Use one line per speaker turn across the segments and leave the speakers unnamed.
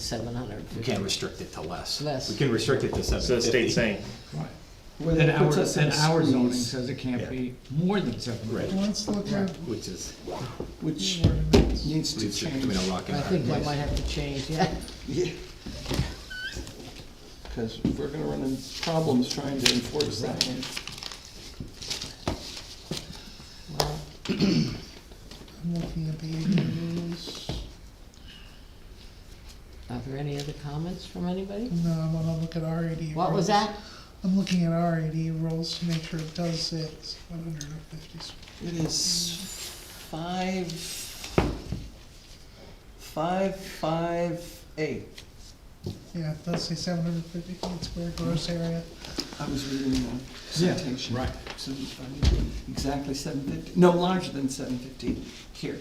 seven hundred and
We
fifty.
can't restrict it to less.
Less.
We can restrict it to seven fifty.
So the state's saying,
Well,
And
that
our,
puts us in
and our zoning
squeeze.
says it
Yeah.
can't be more than seven.
Right,
Let's look at
which is,
which needs to
leaves it
change,
between a rock and
I
a
think
hard
that
place.
might have to change, yeah.
because we're gonna run into problems trying to enforce that one.
Well,
I'm looking at the ADUs.
Are there any other comments from anybody?
No, I wanna look at our AD.
What was
rules.
that?
I'm looking at our AD rules to make sure it does say it's one hundred and fifty square.
It is five, five, five, eight.
Yeah, it does say seven hundred and fifty feet square gross area.
I was reading the
Yeah,
citation.
right.
So it's funny. Exactly seven fifty, no, larger than seven fifty here,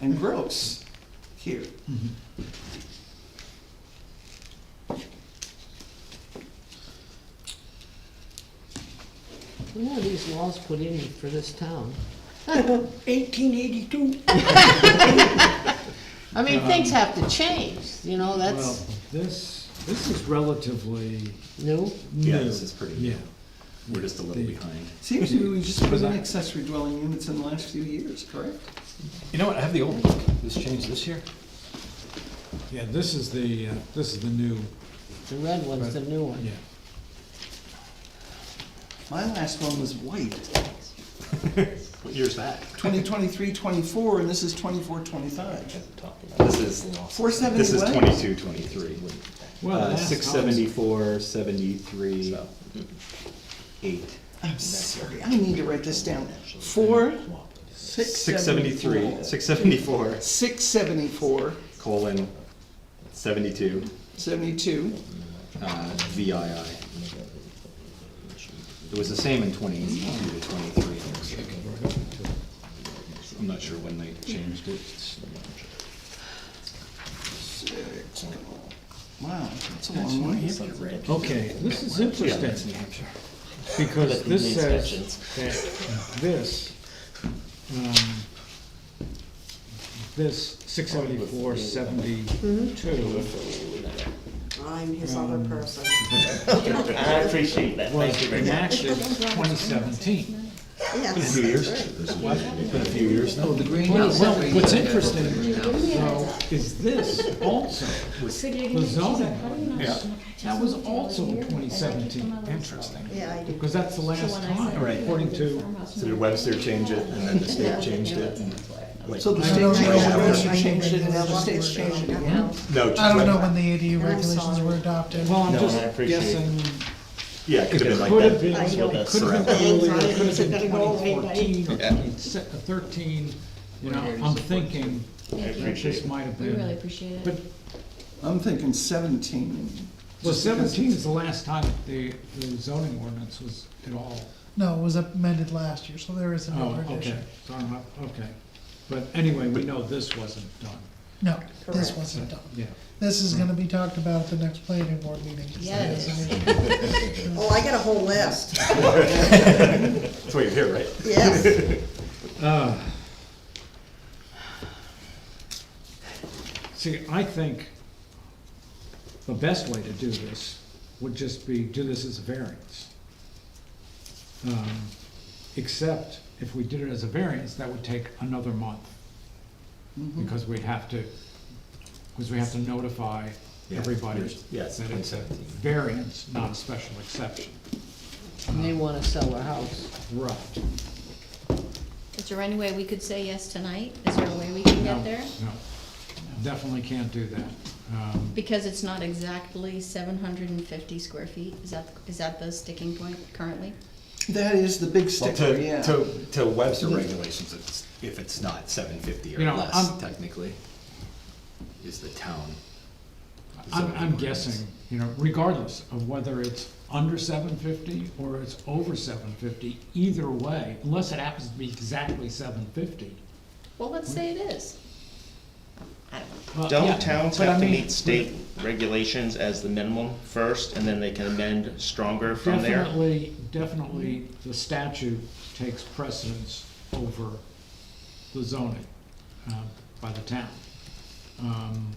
and gross here.
You know, these laws put in for this town.
Eighteen eighty-two.
I mean, things have to change, you know,
Well,
that's
this, this is relatively
new.
new.
Yeah, this is pretty,
Yeah,
we're just a little
The-
behind.
Seems to me we just put
Was
in
I-
accessory dwelling units in the last few years, correct?
You know what, I have the old book, this changed this year?
yeah, this is the, uh, this is the new,
The red one's the new one.
yeah.
My last one was white,
What year's that?
2023, 24, and this is 24, 25.
This is, this is
471?
twenty-two, twenty-three.
Well,
Uh,
that's
six seventy-four, seventy-three, eight.
I'm sorry, I need to write this down. 4,
Six seventy-three, six seventy-four,
674,
colon, seventy-two,
72,
uh, VII. It was the same in twenty-two to twenty-three. it looks like. I'm not sure when they changed it.
six. Wow, that's a long way.
Okay, this is interesting, because this says that this, um, this six seventy-four seventy-two
I'm his other person.
I appreciate that, thank you
was
very much.
enacted twenty seventeen.
Yes.
Been a few years now.
The green
Well,
is
well, what's interesting, though, is this also, the zoning, ordinance, that was also twenty seventeen. Interesting.
Yeah, I do.
Because that's the last time,
Right.
according to,
So did Webster change it, and then the state changed it? and, like,
So the
I don't
state
know.
changed it, Webster
I don't
changed it, and
know.
now the state's changed it again.
Well,
No, just
I don't
Web-
know when the AD regulations
sorry.
were adopted.
well, I'm
No,
just
I appreciate it.
guessing,
Yeah, it could
it
have been
could
like
have
that.
been,
I know.
it could have
That's
been earlier, it
right.
could have been twenty
Anxiety.
fourteen or thirteen, you know, I'm thinking
Thank you.
that this might have
We really
been.
appreciate it.
But,
I'm thinking 17.
well,
just because-
seventeen is the last time that the, the zoning ordinance was at all
No, it was amended last year, so there is
Oh,
another
okay,
edition.
So I'm not- okay. But anyway, we know this wasn't done,
No, this
Correct.
wasn't done.
yeah.
This is gonna be talked about at the next planning board meeting.
Yeah, it is.
Oh, I got a whole list,
why you're here, right?
yes.
Uh, See, I think the best way to do this would just be do this as a variance. Um, Except if we did it as a variance, that would take another month.
Mm-hmm.
Because we'd have to, because we have to notify
Yeah,
everybody
there's- yeah, it's
that it's a
2017.
variance, not a special exception.
And they wanna sell their house.
Right.
Is there any way we could say yes tonight? Is there a way we can
No,
get there?
No, definitely can't do that. Um,
Because it's not exactly seven hundred and fifty square feet, is that, is that the sticking point currently?
That is the big
Well,
sticker,
to,
yeah.
to, to Webster regulations, it's, if it's not seven fifty or
You know,
less
I'm-
technically, is the town.
I'm,
zoning
I'm
ordinance.
guessing, you know, regardless of whether it's under seven fifty or it's over seven fifty, either way, unless it happens to be exactly seven fifty.
Well, let's say it is. I don't know.
Don't towns have to meet state regulations as the minimum first, and then they can amend stronger from there?
Definitely, definitely, the statute takes precedence uh, over the zoning, um, by the town. Um,